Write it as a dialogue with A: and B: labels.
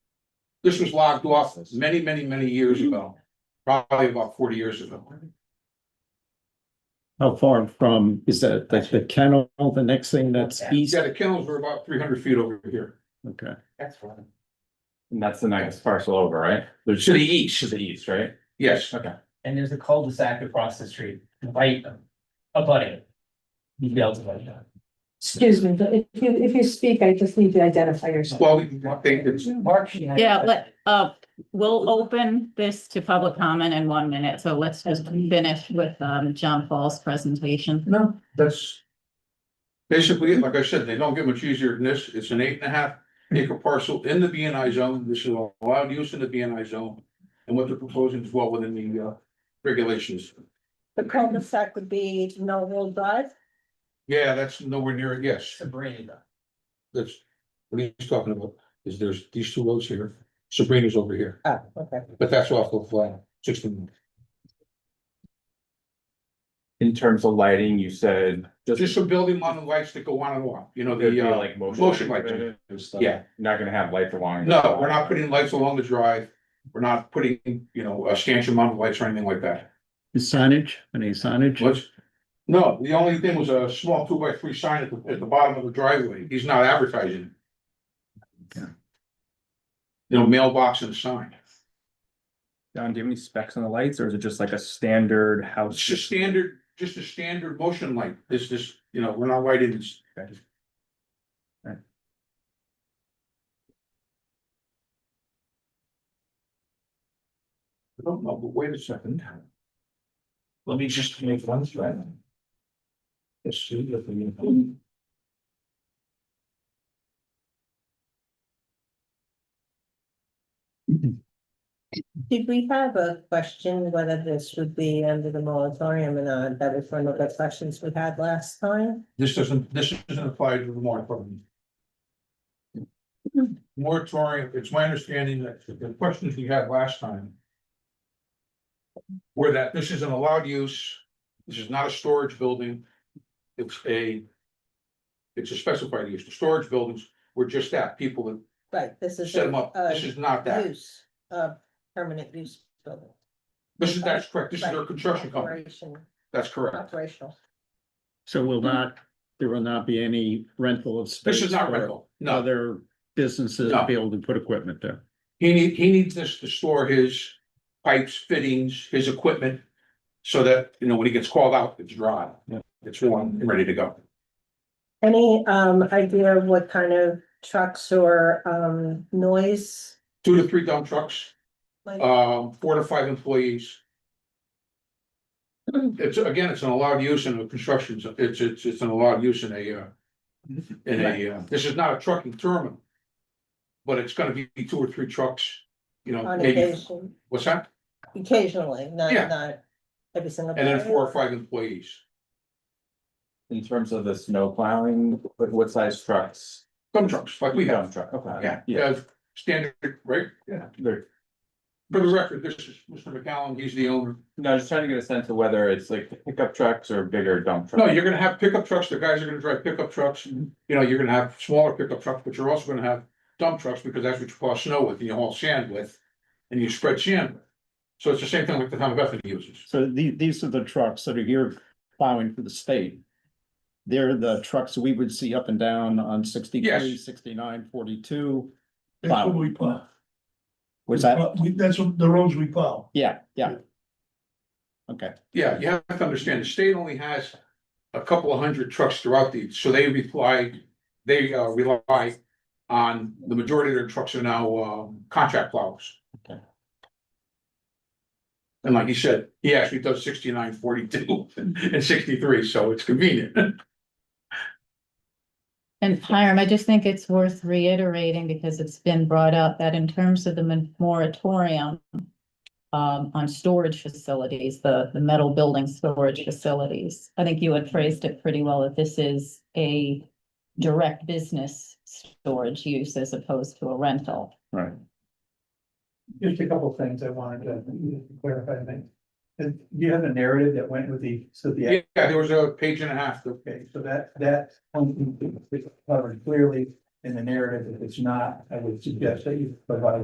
A: This was logged off many, many, many years ago, probably about forty years ago.
B: How far from, is that like the kennel, the next thing that's east?
A: Yeah, the kennels were about three hundred feet over here.
B: Okay,
C: That's one.
D: And that's the next parcel over, right? There's
A: To the
D: east. To the east, right?
A: Yes,
D: Okay.
C: And there's a cul-de-sac across the street, right, abutting. You'd be able to like that.
E: Excuse me, but if you, if you speak, I just need to identify yourself.
A: well, we- I think it's,
C: Mark. you had-
F: Yeah, let, uh, we'll open this to public comment in one minute, so let's just finish with, um, John Paul's presentation.
A: no, that's. Basically, like I said, they don't get much easier than this. It's an eight and a half acre parcel in the B and I zone. This is allowed use in the B and I zone. And what they're proposing is well within the uh regulations.
G: The cul-de-sac would be Millville Drive.
A: Yeah, that's nowhere near it, yes.
C: Sabrina.
A: That's what he's talking about, is there's these two roads here, Sabrina's over here,
G: Oh, okay.
A: but that's off of uh sixteen.
D: In terms of lighting, you said.
A: Just some building model lights that go on and off, you know,
D: There'd be
A: the uh,
D: like
A: motion
D: lighting and stuff.
A: yeah.
D: Not gonna have lights along.
A: no, we're not putting lights along the drive. We're not putting, you know, a stanchion mounted lights or anything like that.
B: The signage, any signage?
A: What's? No, the only thing was a small two by three sign at the at the bottom of the driveway. He's not advertising.
B: Yeah.
A: You know, mailbox and a sign.
D: Don, do you have any specs on the lights or is it just like a standard house?
A: It's just standard, just a standard motion light. This this, you know, we're not lighting this. I don't know, but wait a second. Let me just make one thread. Let's see if we can.
G: Did we have a question whether this would be under the moratorium or not? That was one of the questions we had last time.
A: This doesn't, this doesn't apply to the moratorium. Moratorium, it's my understanding that the questions we had last time. Were that this is an allowed use, this is not a storage building, it's a. It's a specified use, the storage buildings were just that, people that
G: Right, this is.
A: set them
G: a,
A: up, this is not
G: uh,
A: that,
G: Use, uh, permanent use building.
A: this is, that's correct, this is their construction company,
G: Operation-
A: that's correct.
G: Operational.
B: So will not, there will not be any rental of space?
A: This is not
B: for
A: rental, no,
B: Other businesses
A: No.
B: be able to put equipment there?
A: He need, he needs this to store his pipes, fittings, his equipment. So that, you know, when he gets called out, it's dry,
B: Yeah.
A: it's warm and ready to go.
G: Any, um, idea of what kind of trucks or, um, noise?
A: Two to three dump trucks,
G: like-
A: um, four to five employees. It's, again, it's an allowed use in a construction, zo- it's, it's, it's an allowed use in a, uh. In a, uh, this is not a trucking terminal. But it's gonna be two or three trucks, you know,
G: On
A: maybe,
G: occasion,
A: what's that?
G: occasionally, not,
A: Yeah.
G: not every single.
A: And then
G: day.
A: four or five employees.
D: In terms of the snow plowing, what, what size trucks?
A: Dump trucks, like we have.
D: Dump Truck, okay.
A: Yeah, yeah, standard, right? Yeah.
D: They're-
A: For the record, this is Mr. McCallum, he's the owner.
D: no, just trying to get a sense of whether it's like pickup trucks or bigger dump trucks.
A: No, you're gonna have pickup trucks, the guys are gonna drive pickup trucks, you know, you're gonna have smaller pickup trucks, but you're also gonna have dump trucks, because that's what you plow snow with, and you haul sand with. And you spread sand with. So it's the same thing like the town of Bethany uses.
B: So the, these are the trucks that are here plowing for the state. They're the trucks we would see up and down on sixty-three,
A: Yes.
B: sixty-nine, forty-two.
H: That's what we plow.
B: Was that,
H: We- That's what the roads we plow.
B: yeah, yeah. Okay,
A: Yeah, you have to understand, the state only has a couple of hundred trucks throughout the, so they reply, they uh, rely on, the majority of their trucks are now um, contract plows.
B: Okay.
A: And like you said, he actually does sixty-nine, forty-two and sixty-three, so it's convenient.
F: And Hiram, I just think it's worth reiterating because it's been brought up that in terms of the mon- moratorium um, on storage facilities, the, the metal building storage facilities. I think you had phrased it pretty well, that this is a direct business storage use as opposed to a rental.
B: right.
I: Just a couple of things I wanted to clarify, I think. And do you have a narrative that went with the, so the,
A: Yeah, there was a page and a half that
I: okay, so that, that function is covered clearly in the narrative. If it's not, I would suggest that you provide